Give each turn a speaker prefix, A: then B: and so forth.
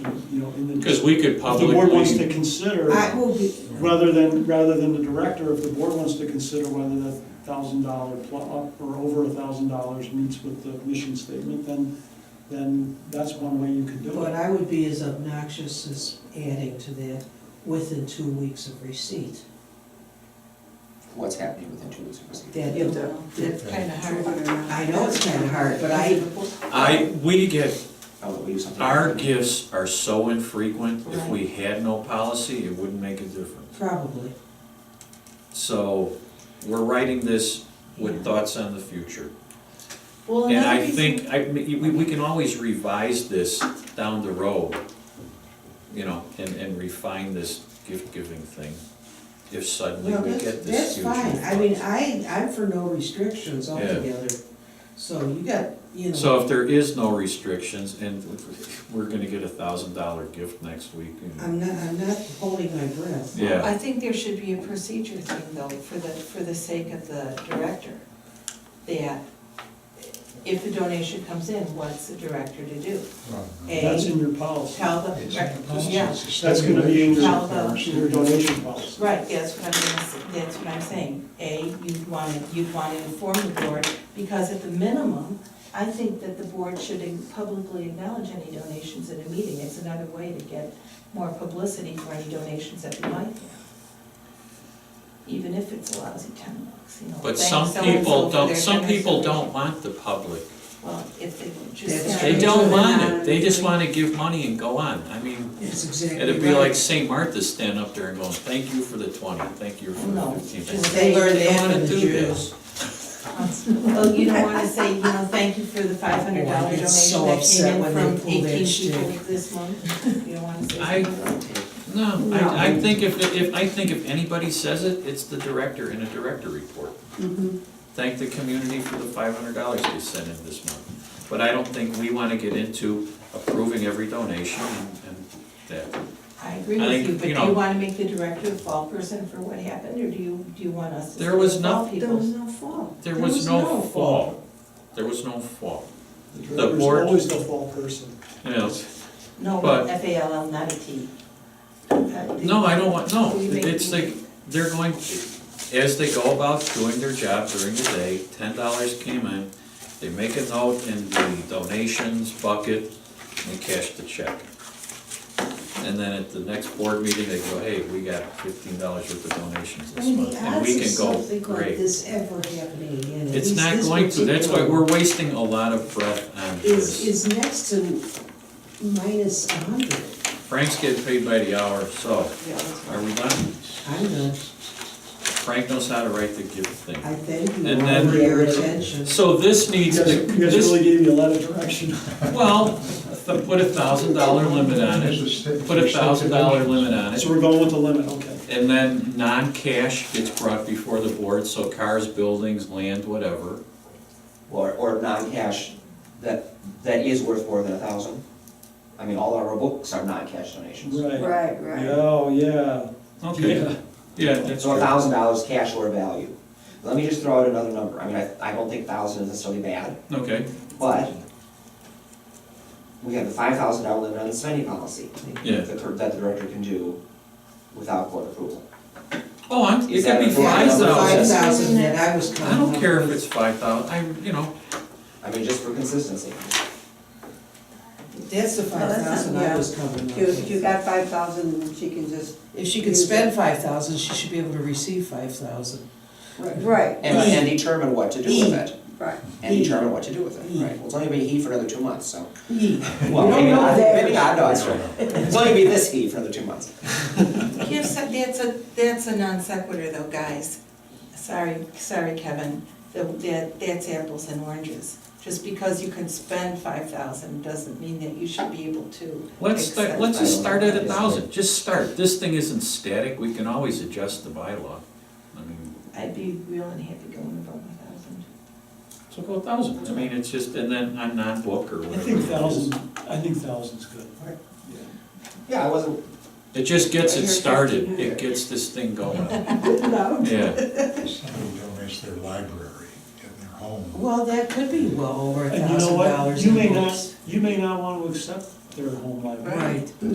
A: know, in the.
B: Because we could
A: If the board wants to
B: publicly,
A: consider,
C: I will be,
A: rather than, rather than the director, if the board wants to consider whether that thousand dollar up or over a thousand dollars meets with the mission statement, then, then that's one way you could do
C: but
A: it.
C: I would be as obnoxious as adding to that within two weeks of receipt.
D: what's happening within two weeks of proceeding.
C: That,
E: That's
C: that,
E: kind of hard.
C: I know it's kind of hard, but I,
B: I, we get,
D: Oh, we use something.
B: our gifts are so infrequent, if we had no policy, it wouldn't make a difference.
C: probably,
B: So, we're writing this with thoughts on the future.
F: Well,
B: And
F: another
B: I
F: reason-
B: think, I, we, we can always revise this down the road, you know, and, and refine this gift-giving thing, if suddenly
C: no,
B: we
C: that's,
B: get
C: that's
B: this huge.
C: fine, I mean, I, I'm for no restrictions altogether. So you got, you know.
B: So if there is no restrictions, and we're gonna get a thousand dollar gift next week, you know.
C: I'm not, I'm not holding my breath.
B: yeah,
F: I think there should be a procedure thing though, for the, for the sake of the director. That if the donation comes in, what's the director to do?
A: That's
F: A,
A: in your policy.
F: tell the, yeah,
A: That's gonna be in your,
F: How about-
A: your donation policy.
F: right, that's what I'm, gonna s- that's what I'm saying. A, you'd want to, you'd want to inform the board, because at the minimum, I think that the board should publicly acknowledge any donations at a meeting. It's another way to get more publicity for any donations that we might have. Even if it's a lousy ten bucks, you know.
B: but
F: thank
B: some
F: so-and-so
B: people
F: for their
B: don't, some people
F: generous
B: don't want the public.
F: donation. Well, if it
C: That's
F: just.
C: true.
B: They don't want it, they just wanna give money and go on, I mean,
C: That's exactly right.
B: it'd be like Saint Martha stand up there and going, thank you for the twenty, thank you for the
F: No,
B: fifteen.
F: just
C: They learned
B: They don't
C: that
B: wanna
C: from the
B: do
C: Jews.
B: this.
F: Well, Oh, you don't wanna say, you know, thank you for the five hundred
C: Oh, I
F: dollar
C: get so
F: donation that
C: upset
F: came
C: when
F: in
C: they
F: from
C: pull that
F: eighteen people
C: shtick.
F: this month. You don't wanna say
B: I-
F: something.
B: No, I, I think if, if, I think if anybody says it, it's the director in a director report. Thank the community for the five hundred dollars they sent in this month. But I don't think we wanna get into approving every donation and, and that.
F: I
B: I
F: agree with
B: think,
F: you, but do
B: you
F: you
B: know-
F: wanna make the director a fall person for what happened, or do you, do you want us to?
B: There was
F: sort of fall
B: no-
F: people?
C: no fall.
B: There was no fall. There was no fall.
A: The
B: The
A: director's
B: board-
A: always the fall person.
B: Yes.
F: No,
B: but-
F: F A L L, not a T.
B: No, I don't want, no,
F: Will you make-
B: it's like, they're going, as they go about doing their job during the day, ten dollars came in, they make a note in the donations bucket, and they cash the check. And then at the next board meeting, they go, hey, we got fifteen dollars worth of donations
C: I
B: this
C: mean,
B: month,
C: the
B: and we
C: odds of
B: can go,
C: something like
B: great.
C: this ever happening again. at
B: It's
C: least
B: not
C: this
B: going to, that's why
C: particular
B: we're wasting a lot of breath on
C: one, Is,
B: this.
C: is next to minus a hundred.
B: Frank's getting paid by the hour, so, are we done?
C: I'm done.
B: Frank knows how to write the gift thing.
C: I thank you
B: And
C: all
B: then-
C: for your attention.
B: So this
A: You
B: needs
A: guys,
B: to,
A: you guys
B: this,
A: really gave me a lot of direction.
B: well, th- put a thousand dollar limit on it, put a thousand dollar limit on it.
A: So we're going with the limit, okay.
B: And then non-cash gets brought before the board, so cars, buildings, land, whatever.
D: Or, or non-cash, that, that is worth more than a thousand. I mean, all our books are non-cash donations.
A: Right.
E: Right, right.
A: Oh, yeah.
B: Okay,
A: Yeah.
B: yeah, that's
D: So a
B: true.
D: thousand dollars cash or value. Let me just throw out another number. I mean, I, I don't think thousand is necessarily bad,
B: Okay,
D: but we have the five thousand dollar limit on the spending policy.
B: Yeah.
D: That, the- that the director can do without board approval.
B: oh, I'm, it
D: Is
B: could
D: that
B: be
D: a-
B: five
C: That's the five
B: thousand.
C: thousand that I was
B: I
C: counting.
B: don't
C: on.
B: care if it's five thousand, I, you know,
D: I mean, just for consistency.
C: That's the
E: Well,
C: five
E: that's
C: thousand
E: not-
C: I was coming
E: If
C: up
E: you- if you
C: with.
E: got five thousand, she can just.
C: If she can spend five thousand, she should be able to receive five thousand.
E: Right,
D: And, and determine what to do with it.
E: right.
D: And determine what to do with it.
C: Mm.
D: Right. Well, it's only gonna be he for another two months, so.
C: We
D: Well,
C: don't
D: maybe
C: know
D: not,
C: that.
D: maybe not, no, that's right. It's only be this heat for the two months.
F: Give some, that's a, that's a non sequitur though, guys. Sorry, sorry, Kevin, Tha- that, that's apples and oranges. Just because you can spend five thousand doesn't mean that you should be able to.
B: let's, start-
F: accept
B: let's
F: it.
B: just start at a thousand, just start. This thing isn't static, we can always adjust the bylaw. I mean,
F: I'd be real unhappy going above a thousand.
B: so go a thousand, I mean, it's just, and then on non-book or
A: I
B: whatever.
A: think
B: it is.
A: thousand, I think thousand's good.
D: Yeah, I wasn't,
B: It just gets it started, it gets this thing going. Yeah,
G: Somebody donates their library in their home.
C: Well, that could be well over a
A: And you know
C: thousand
A: what?
C: dollars
A: You
C: in
A: may
C: books.
A: not, you may not want to accept their home library.
C: Right.